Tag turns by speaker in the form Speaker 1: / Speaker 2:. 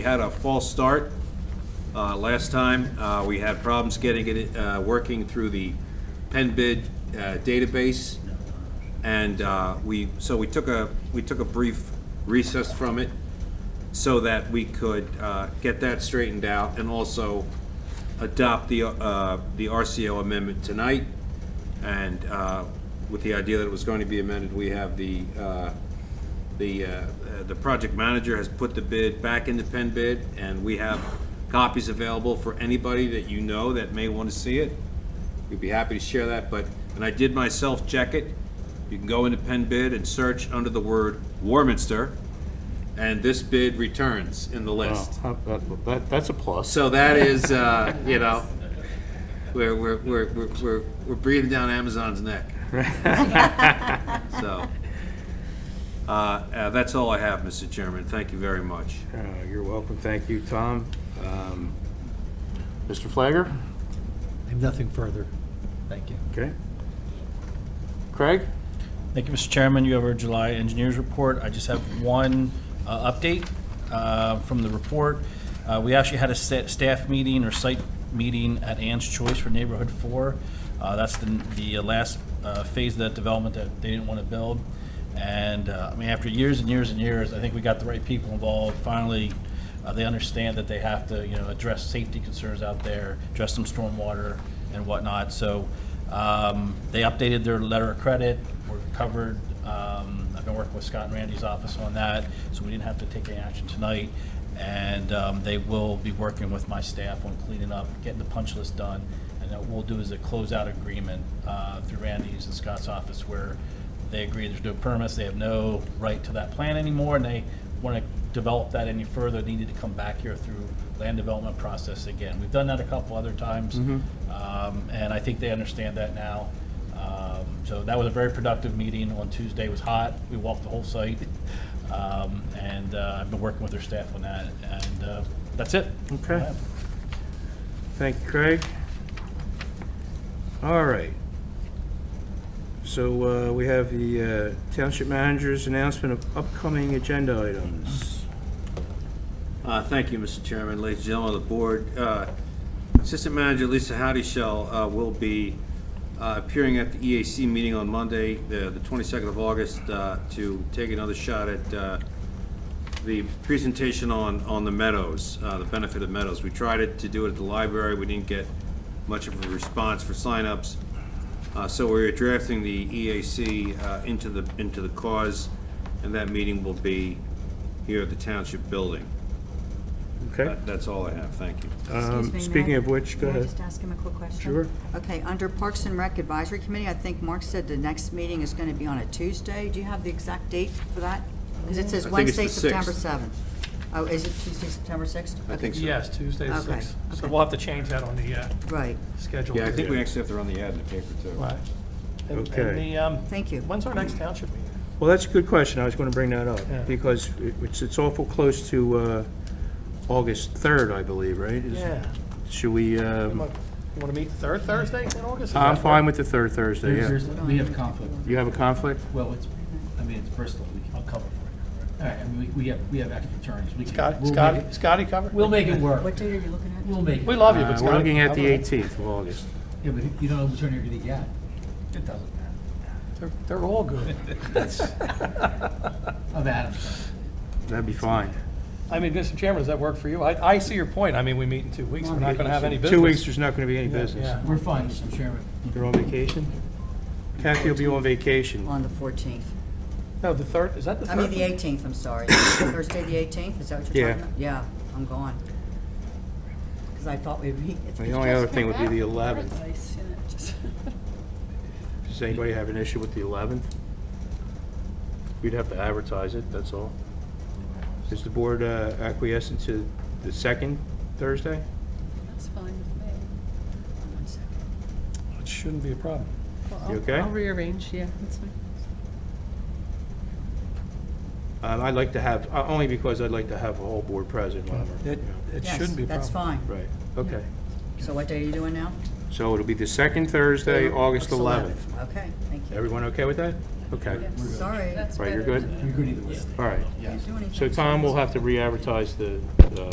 Speaker 1: We had a false start uh, last time. Uh, We had problems getting it, uh, working through the Penn bid uh, database. And uh, we, so we took a, we took a brief recess from it so that we could uh, get that straightened out and also adopt the, uh, the RCO amendment tonight. And uh, with the idea that it was going to be amended, we have the, uh, the, uh, uh, the project manager has put the bid back into Penn bid, and we have copies available for anybody that you know that may want to see it. We'd be happy to share that, but, and I did myself check it. You can go into Penn bid and search under the word Warminster, and this bid returns in the list.
Speaker 2: Well, Oh, that- that- That's a plus.
Speaker 1: So that is, uh, you know, we're, we're, we're, we're- we're, we're breathing down Amazon's neck. So, uh, uh, that's all I have, Mr. Chairman. Thank you very much.
Speaker 3: Uh, You're welcome. Thank you, Tom. Um,
Speaker 2: Mr. Flagger?
Speaker 4: I have nothing further. Thank you.
Speaker 2: Okay. Craig?
Speaker 5: Thank you, Mr. Chairman. You have our July engineers report. I just have one uh, update uh, from the report. Uh, We actually had a sta- staff meeting or site meeting at Ann's Choice for Neighborhood Four. Uh, That's the, the last uh, phase of that development that they didn't want to build. And, uh, I mean, after years and years and years, I think we got the right people involved. Finally, uh, they understand that they have to, you know, address safety concerns out there, address some stormwater and whatnot. So um, they updated their letter of credit, we're covered. Um, I've been working with Scott and Randy's office on that, so we didn't have to take any action tonight. And um, they will be working with my staff on cleaning up, getting the punch list done. And what we'll do is a closeout agreement uh, through Randy's and Scott's office where they agree there's no permits, they have no right to that plan anymore, and they want to develop that any further, needed to come back here through land development process again. We've done that a couple other times, um, and I think they understand that now. Um, So that was a very productive meeting on Tuesday, it was hot, we walked the whole site, Um, and uh, I've been working with their staff on that, and uh, that's it.
Speaker 2: Okay. Thank you, Craig. All right. So uh, we have the uh, Township Manager's announcement of upcoming agenda items.
Speaker 1: Uh, Thank you, Mr. Chairman, ladies and gentlemen of the board. Uh, Assistant Manager Lisa Howdy Shell uh, will be uh, appearing at the EAC meeting on Monday, the the 22nd of August, uh, to take another shot at uh, the presentation on, on the meadows, uh, the benefit of meadows. We tried it, to do it at the library, we didn't get much of a response for signups. Uh, so we're drafting the EAC, uh, into the, into the cause, and that meeting will be here at the township building.
Speaker 2: Okay?
Speaker 1: That- That's all I have, thank you.
Speaker 2: Um,
Speaker 6: Uh, Excuse me, may
Speaker 2: Speaking
Speaker 6: I-
Speaker 2: of which, go
Speaker 6: may I
Speaker 2: ahead.
Speaker 6: just ask him a quick question?
Speaker 2: Sure.
Speaker 6: Okay, under Parks and Rec Advisory Committee, I think Mark said the next meeting is going to be on a Tuesday. Do you have the exact date for that? Because it
Speaker 1: I
Speaker 6: says
Speaker 1: think it's
Speaker 6: Wednesday,
Speaker 1: the
Speaker 6: September
Speaker 1: 6th.
Speaker 6: 7th. Oh, is it Tuesday, September 6th?
Speaker 1: I think so.
Speaker 7: Yes, Tuesday the
Speaker 6: Okay,
Speaker 7: 6th. So
Speaker 6: okay.
Speaker 7: we'll have to change that on the uh,
Speaker 6: Right,
Speaker 7: schedule.
Speaker 1: Yeah, I think we actually have to run the ad in the paper, too.
Speaker 7: Right. And- and
Speaker 2: Okay.
Speaker 7: the, um,
Speaker 6: thank you.
Speaker 7: When's our next township meeting?
Speaker 2: Well, that's a good question. I was going to bring that
Speaker 7: Yeah.
Speaker 2: up because it- it's it's awful close to uh, August 3rd, I believe, right? Is-
Speaker 7: Yeah.
Speaker 2: Should we,
Speaker 7: You
Speaker 2: um,
Speaker 7: want to meet the third Thursday in August? Is
Speaker 2: I'm
Speaker 7: that-
Speaker 2: fine with the third Thursday, yeah.
Speaker 8: There's- there's- We have conflict.
Speaker 2: You have a conflict?
Speaker 8: Well, it's, I mean, it's Bristol. We can,
Speaker 5: I'll cover for
Speaker 8: all right, I mean, we, we have, we have active attorneys. We can.
Speaker 7: Scott-
Speaker 8: we'll make
Speaker 7: Scotty,
Speaker 8: it-
Speaker 7: Scotty covered?
Speaker 8: We'll make it work.
Speaker 6: What date are you looking at?
Speaker 8: We'll make it.
Speaker 7: We love you,
Speaker 2: Uh,
Speaker 7: but Scotty.
Speaker 2: We're looking at the
Speaker 7: I don't know.
Speaker 2: 18th of August.
Speaker 8: Yeah, but if you don't know which attorney you're gonna get. It doesn't matter.
Speaker 7: They're- They're all good.
Speaker 8: Of Adams.
Speaker 2: That'd be fine.
Speaker 7: I mean, Mr. Chairman, does that work for you? I, I see your point. I mean, we meet in two weeks. We're not going to have any business.
Speaker 2: Two weeks, there's not going to be any business.
Speaker 7: yeah.
Speaker 8: We're fine, Mr. Chairman.
Speaker 2: You're on vacation? Kathy will be on vacation.
Speaker 6: On the 14th.
Speaker 7: No, the third, is that the
Speaker 6: I
Speaker 7: third?
Speaker 6: mean, the 18th, I'm sorry. Thursday, the 18th, is that what you're
Speaker 2: Yeah.
Speaker 6: talking about? Yeah, I'm gone. Because I thought we'd be.
Speaker 2: The only other thing would be the 11th. Does anybody have an issue with the 11th? We'd have to advertise it, that's all. Is the board uh, acquiescent to the second Thursday?
Speaker 9: That's fine with me.
Speaker 6: One second.
Speaker 7: It shouldn't be a problem.
Speaker 9: Well,
Speaker 2: You
Speaker 9: I'll-
Speaker 2: okay?
Speaker 9: I'll rearrange, yeah, that's fine.
Speaker 2: Um, I'd like to have, uh, only because I'd like to have a whole board present when I'm-
Speaker 7: It, it
Speaker 6: Yes,
Speaker 7: shouldn't be a problem.
Speaker 6: That's fine.
Speaker 2: Right, okay.
Speaker 6: So what day are you doing now?
Speaker 2: So it'll be the second Thursday, August 11th.
Speaker 6: Okay, thank you.
Speaker 2: Everyone okay with that? Okay,
Speaker 6: Sorry.
Speaker 9: That's
Speaker 2: Right, you're
Speaker 9: better
Speaker 2: good?
Speaker 9: than-
Speaker 8: You're good either way.
Speaker 2: all right.
Speaker 6: Didn't do anything.
Speaker 2: So Tom will have to re-advertise the uh,